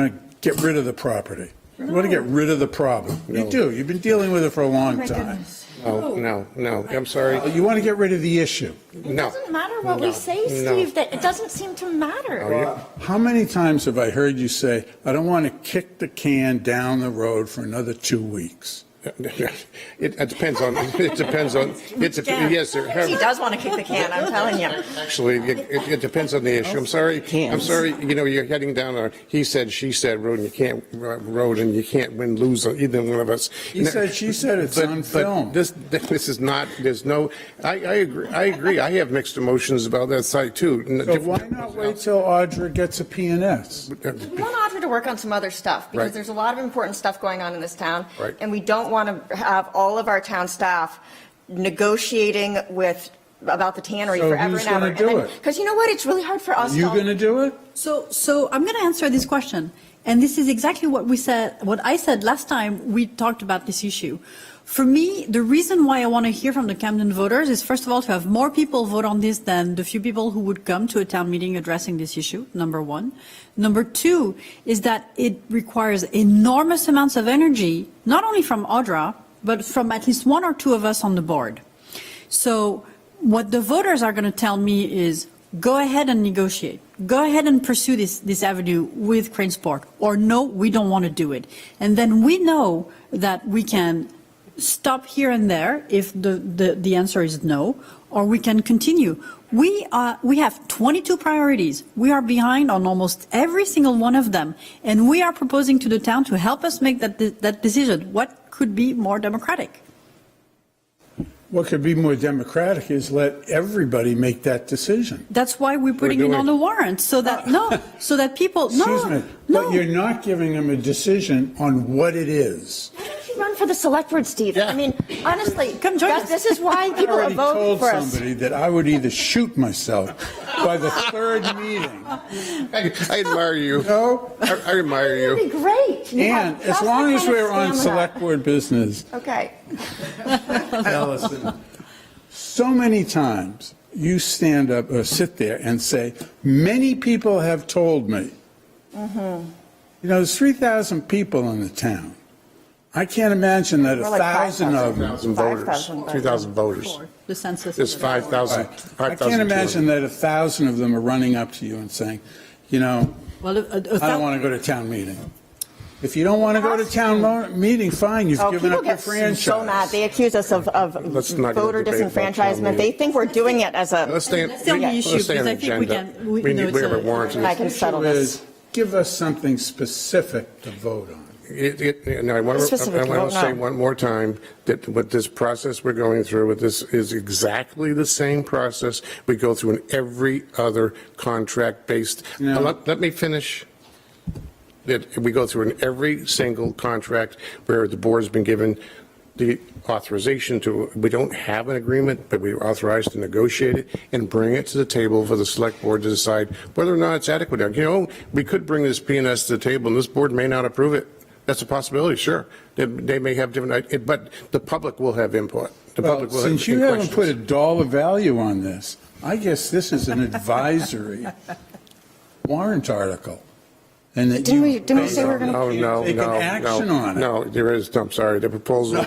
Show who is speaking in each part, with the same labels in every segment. Speaker 1: want to get rid of the property. You want to get rid of the problem. You do. You've been dealing with it for a
Speaker 2: Oh
Speaker 1: long time.
Speaker 3: Oh.
Speaker 4: No, no, no, I'm sorry,
Speaker 1: You want to get rid of the issue.
Speaker 4: no.
Speaker 3: It doesn't matter what we
Speaker 4: No,
Speaker 3: say,
Speaker 4: no.
Speaker 3: Steve, that it doesn't seem to matter.
Speaker 1: How many times have I heard you say, I don't want to kick the can down the road for another two weeks?
Speaker 4: It it depends on, it depends on, it's, a- yes, sir.
Speaker 3: He does want to kick the can, I'm telling you.
Speaker 4: Actually, it, it it depends on the issue. I'm sorry, I'm sorry, you know, you're heading down a he said, she said road, and you can't, uh, road, and you can't win, lose, on either one of us.
Speaker 1: He said, she said, it's
Speaker 4: But-
Speaker 1: on
Speaker 4: but
Speaker 1: film.
Speaker 4: This, this is not, there's no, I, I agree, I agree. I have mixed emotions about that site, too.
Speaker 1: So why not wait till Audra gets a PNS?
Speaker 3: We want Audra to work on some other stuff, because
Speaker 4: Right.
Speaker 3: there's a lot of important stuff going on in this town.
Speaker 4: Right.
Speaker 3: And we don't want to have all of our town staff negotiating with, about the tannery
Speaker 1: So
Speaker 3: forever
Speaker 1: who's
Speaker 3: and ever.
Speaker 1: gonna do it?
Speaker 3: Because you know what, it's really hard for us.
Speaker 1: You
Speaker 3: all-
Speaker 1: going to do it?
Speaker 2: So, so I'm going to answer this question, and this is exactly what we said, what I said last time we talked about this issue. For me, the reason why I want to hear from the Camden voters is first of all to have more people vote on this than the few people who would come to a town meeting addressing this issue. Number one. Number two is that it requires enormous amounts of energy, not only from Audra, but from at least one or two of us on the board. So what the voters are going to tell me is, go ahead and negotiate. Go ahead and pursue this, this avenue with Cranesport, or no, we don't want to do it. And then we know that we can stop here and there if the, the, the answer is no, or we can continue. We are, we have 22 priorities. We are behind on almost every single one of them. And we are proposing to the town to help us make that, de- that decision. What could be more democratic?
Speaker 1: What could be more democratic is let everybody make that decision.
Speaker 2: That's why we're putting it
Speaker 4: doing-
Speaker 2: on the warrant, so that, no, so that people,
Speaker 1: Excuse me,
Speaker 2: no,
Speaker 1: but you're
Speaker 2: no.
Speaker 1: not giving them a decision on what it is.
Speaker 3: Why don't you run for the select board, Steve? I mean, honestly,
Speaker 2: Come join
Speaker 3: that-
Speaker 2: us.
Speaker 3: this is why
Speaker 1: I
Speaker 3: people are
Speaker 1: already
Speaker 3: voting
Speaker 1: told
Speaker 3: for us.
Speaker 1: somebody that I would either shoot myself by the third meeting.
Speaker 4: I I admire you.
Speaker 1: No.
Speaker 4: I I admire you.
Speaker 3: That'd be great. Yeah,
Speaker 1: And
Speaker 3: that's
Speaker 1: as
Speaker 3: the
Speaker 1: long as
Speaker 3: kind of
Speaker 1: we're on
Speaker 3: stamina.
Speaker 1: select board business,
Speaker 3: Okay.
Speaker 1: Allison, so many times you stand up or sit there and say, many people have told me.
Speaker 3: Mm-hmm.
Speaker 1: You know, there's 3,000 people in the town. I can't imagine that a
Speaker 3: We're like
Speaker 1: thousand of
Speaker 3: 5,000.
Speaker 1: them
Speaker 4: 2,000 voters,
Speaker 3: 5,000 voters.
Speaker 4: 2,000 voters.
Speaker 2: The census.
Speaker 4: There's 5,000,
Speaker 1: I can't
Speaker 4: 5,000.
Speaker 1: imagine that a thousand of them are running up to you and saying, you know,
Speaker 2: Well, uh, a- a- a
Speaker 1: I don't
Speaker 2: thou-
Speaker 1: want to go to town meeting. If you don't want to go to town mo- meeting, fine, you've
Speaker 3: Oh,
Speaker 1: given
Speaker 3: people
Speaker 1: up your
Speaker 3: get so mad.
Speaker 1: franchise.
Speaker 3: They accuse us of, of
Speaker 4: Let's not get
Speaker 3: voter
Speaker 4: into debate about town
Speaker 3: disenfranchisement. They
Speaker 4: meeting.
Speaker 3: think we're doing it as a,
Speaker 4: Let's stay,
Speaker 2: That's the only
Speaker 4: let's
Speaker 2: issue,
Speaker 4: stay on
Speaker 2: because I think we
Speaker 4: agenda.
Speaker 2: can- we-
Speaker 4: We
Speaker 2: you know,
Speaker 4: need, we
Speaker 2: it's
Speaker 4: have a
Speaker 2: a-
Speaker 4: warrant.
Speaker 3: I can settle this.
Speaker 1: Is give us something specific to vote on.
Speaker 4: It, it, and I want,
Speaker 3: It's just a
Speaker 4: I want
Speaker 3: vote
Speaker 4: to
Speaker 3: now.
Speaker 4: say one more time that what this process we're going through with this is exactly the same process we go through in every other contract-based.
Speaker 1: No.
Speaker 4: Let, let me finish. That we go through in every single contract where the board's been given the authorization to, we don't have an agreement, but we are authorized to negotiate it and bring it to the table for the select board to decide whether or not it's adequate. You know, we could bring this PNS to the table and this board may not approve it. That's a possibility, sure. They, they may have different, it- but the public will have input. The
Speaker 1: Well,
Speaker 4: public will have
Speaker 1: since you haven't put a
Speaker 4: questions.
Speaker 1: dollar value on this, I guess this is an advisory warrant article. And that
Speaker 3: Didn't
Speaker 1: you
Speaker 3: we- didn't we say we're gonna-
Speaker 4: No, no, no,
Speaker 1: Take an
Speaker 4: no,
Speaker 1: action on it.
Speaker 4: No, there is, I'm sorry, the proposal,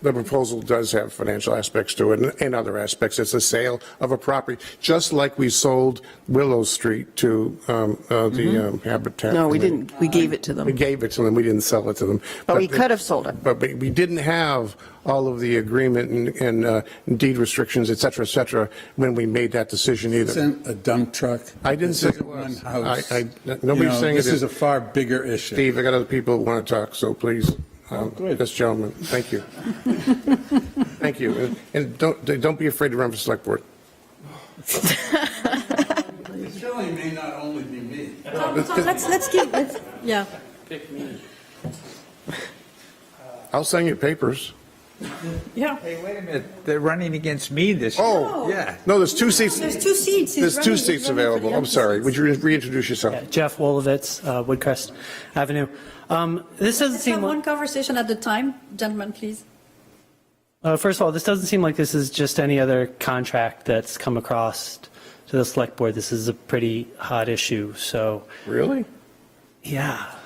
Speaker 4: the proposal does have financial aspects to it and- and other aspects. It's a sale of a property, just like we sold Willow Street to um, uh,
Speaker 3: Mm-hmm.
Speaker 4: the um, Habitat.
Speaker 5: No, we didn't, we gave it to
Speaker 4: We
Speaker 5: them.
Speaker 4: gave it to them, we didn't sell it to them.
Speaker 3: but we could have sold it.
Speaker 4: But we we didn't have all of the agreement and- and uh, deed restrictions, et cetera, et cetera, when we made that decision either.
Speaker 1: Isn't a dump truck.
Speaker 4: I didn't
Speaker 1: This
Speaker 4: say it
Speaker 1: isn't one
Speaker 4: was.
Speaker 1: house.
Speaker 4: I- I-
Speaker 1: You
Speaker 4: nobody's
Speaker 1: know,
Speaker 4: saying it
Speaker 1: This
Speaker 4: is.
Speaker 1: is a far bigger issue.
Speaker 4: Steve, I got other people who want to talk, so please, um,
Speaker 1: good.
Speaker 4: this gentleman, thank you. Thank you. And- And don't, don't be afraid to run for select board.
Speaker 1: It surely may not only be me.
Speaker 2: Tom, Tom, Let's, let's give, let's, yeah.
Speaker 4: I'll sign your papers.
Speaker 2: Yeah.
Speaker 6: Hey, wait a minute, they're running against me this year.
Speaker 4: Oh.
Speaker 6: Yeah.
Speaker 4: No, there's two seats,
Speaker 2: There's two seats. he's
Speaker 4: there's two
Speaker 2: running- he's
Speaker 4: seats
Speaker 2: running for the
Speaker 4: available. I'm
Speaker 2: empty
Speaker 4: sorry.
Speaker 2: seats.
Speaker 4: Would you reintroduce yourself?
Speaker 7: Yeah, Jeff Wolovitz, uh, Woodcrest Avenue. Um, This doesn't
Speaker 2: Let's have
Speaker 7: seem,
Speaker 2: one
Speaker 7: like-
Speaker 2: conversation at a time, gentlemen, please.
Speaker 7: uh, first of all, this doesn't seem like this is just any other contract that's come across to the select board. This is a pretty hot issue, so.
Speaker 4: Really?
Speaker 7: Yeah.